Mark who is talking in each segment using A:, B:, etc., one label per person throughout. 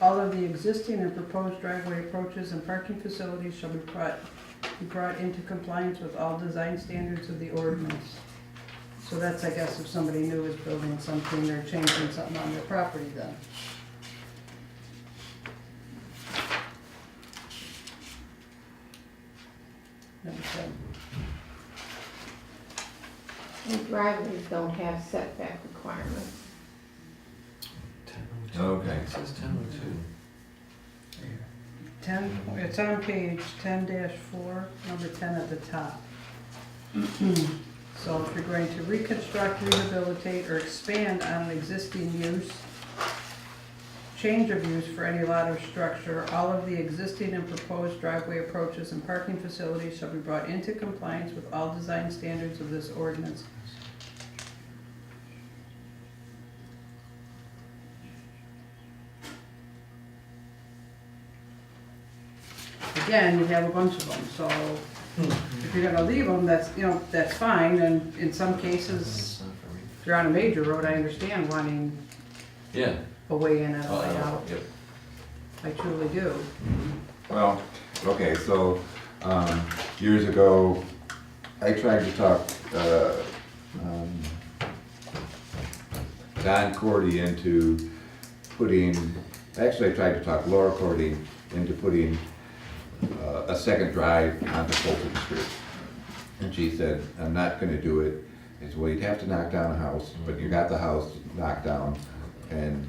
A: All of the existing and proposed driveway approaches and parking facilities shall be brought, be brought into compliance with all design standards of the ordinance. So that's, I guess, if somebody new is building something or changing something on their property then. That was good.
B: And driveways don't have setback requirements.
C: Okay.
D: It says ten oh two.
A: Ten, it's on page ten four, number ten at the top. So if you're going to reconstruct, rehabilitate, or expand on an existing use, change of use for any lot or structure, all of the existing and proposed driveway approaches and parking facilities shall be brought into compliance with all design standards of this ordinance. Again, you have a bunch of them, so if you're gonna leave them, that's, you know, that's fine, and in some cases,
D: That's not for me.
A: if you're on a major road, I understand wanting
D: Yeah.
A: a way in and a
D: Oh,
A: way
D: yeah,
A: out,
D: Yep.
A: I truly do.
C: Well, okay, so, um, years ago, I tried to talk, uh, um, Don Cordy into putting, actually I tried to talk Laura Cordy into putting, uh, a second drive onto Fulton Street. And she said, I'm not gonna do it. I said, well, you'd have to knock down a house, but you got the house knocked down and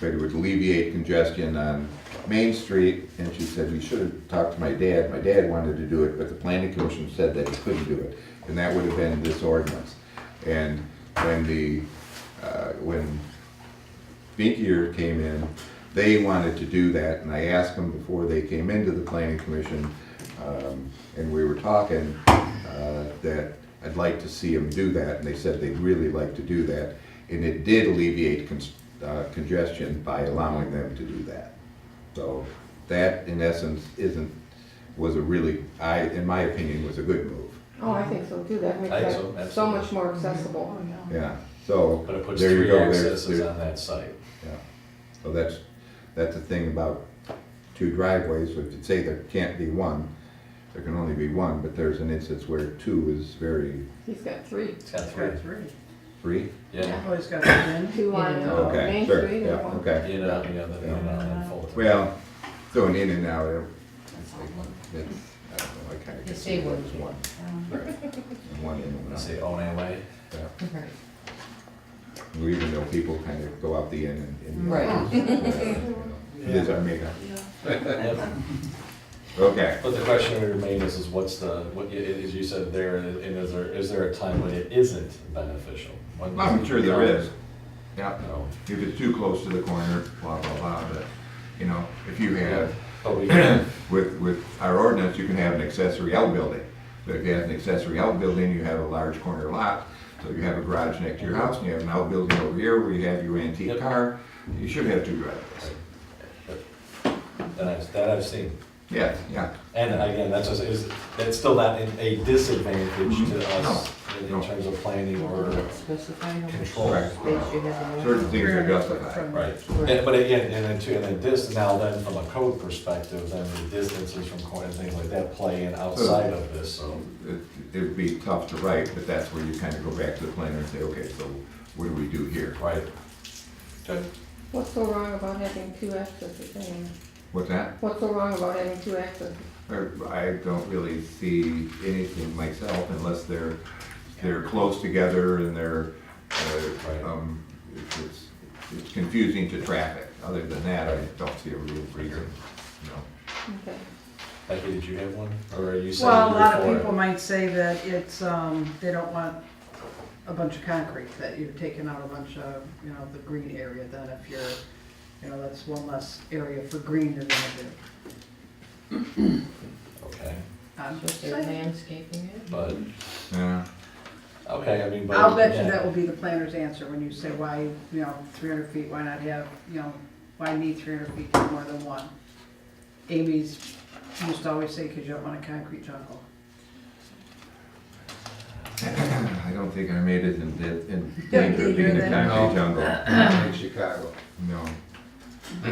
C: but it would alleviate congestion on Main Street, and she said, we should have talked to my dad, my dad wanted to do it, but the planning commission said that he couldn't do it, and that would have been this ordinance. And when the, uh, when Vinkier came in, they wanted to do that, and I asked them before they came into the planning commission, um, and we were talking, uh, that I'd like to see them do that, and they said they'd really like to do that, and it did alleviate cons- uh, congestion by allowing them to do that. So that, in essence, isn't, was a really, I, in my opinion, was a good move,
B: Oh, I think so too, that makes
D: I think
B: that
D: so,
B: so much more accessible.
A: Mm-hmm.
C: Oh, yeah, so.
D: But it puts
C: there you
D: three
C: go, there's-
D: accesses
C: there-
D: on that site.
C: Yeah, so that's, that's the thing about two driveways, so if you say there can't be one, there can only be one, but there's an instance where two is very,
B: He's got three,
D: It's got three.
A: Got three,
C: three?
D: Yeah.
A: always got it in.
B: two on
A: Yeah.
B: uh,
C: Okay,
B: Main
C: sure,
B: Street
C: yeah,
B: and one.
C: okay.
D: In and out, the other, in and out, and then Fulton.
C: Well, going in and out, it- it's like, it's, I don't know, I kinda guess it was one. Right. One in and
D: Let's
C: out.
D: say Onay Way.
C: yeah. We even know people kind of go out the end and. and-
E: Right.
C: you know, It is our makeup.
D: Yep.
C: Okay,
D: But the question we remain is, is what's the, what, i- i- as you said there, and is there, is there a time when it isn't beneficial? When does
C: I'm
D: it
C: sure there
D: become-
C: is. Yeah.
D: No.
C: if it's too close to the corner, blah, blah, blah, but, you know, if you have,
D: But we can,
C: with, with our ordinance, you can have an accessory outbuilding. But if you have an accessory outbuilding, you have a large corner lot, so you have a garage next to your house, and you have an outbuilding over here where you have your antique
D: Yep.
C: car, you should have two driveways.
D: that I've, that I've seen.
C: Yes, yeah,
D: And again, that's just, is, that's still not in- a disadvantage to us in- in
C: Mm-hmm. No.
D: terms of planning or,
E: Specify how much space
D: Control.
E: you have in
C: certain
E: there.
C: things are justified.
D: right? And- But again, and then too, and then this, now then from a code perspective, then the distances from corner and things like that play in outside of this, so.
C: It, it would be tough to write, but that's where you kind of go back to the planner and say, okay, so what do we do here?
D: Right. Good.
B: What's so wrong about having two accesses in there?
C: What's that?
B: What's so wrong about having two accesses?
C: Or I don't really see anything myself unless they're, they're close together and they're,
D: Right.
C: uh, um, it's- it's, it's confusing to traffic. Other than that, I don't see a real reason, no.
B: Okay.
D: Becky, did you have one? Or are you saying?
A: Well, a
D: you're
A: lot of
D: for it?
A: people might say that it's, um, they don't want a bunch of concrete, that you're taking out a bunch of, you know, the green area, then if you're, you know, that's one less area for green than they do.
D: Okay,
A: Um,
E: Just their landscaping it.
D: but,
C: Yeah,
D: okay, I mean, but.
A: I'll bet you
D: yeah.
A: that will be the planner's answer when you say why, you know, three hundred feet, why not have, you know, why need three hundred feet for more than one? Amy's used to always say, cause you don't want a concrete jungle.
C: I don't think I made it in, in,
A: Yeah, you
C: in being
A: did,
C: a
A: then.
C: concrete jungle,
F: in Chicago.
C: no.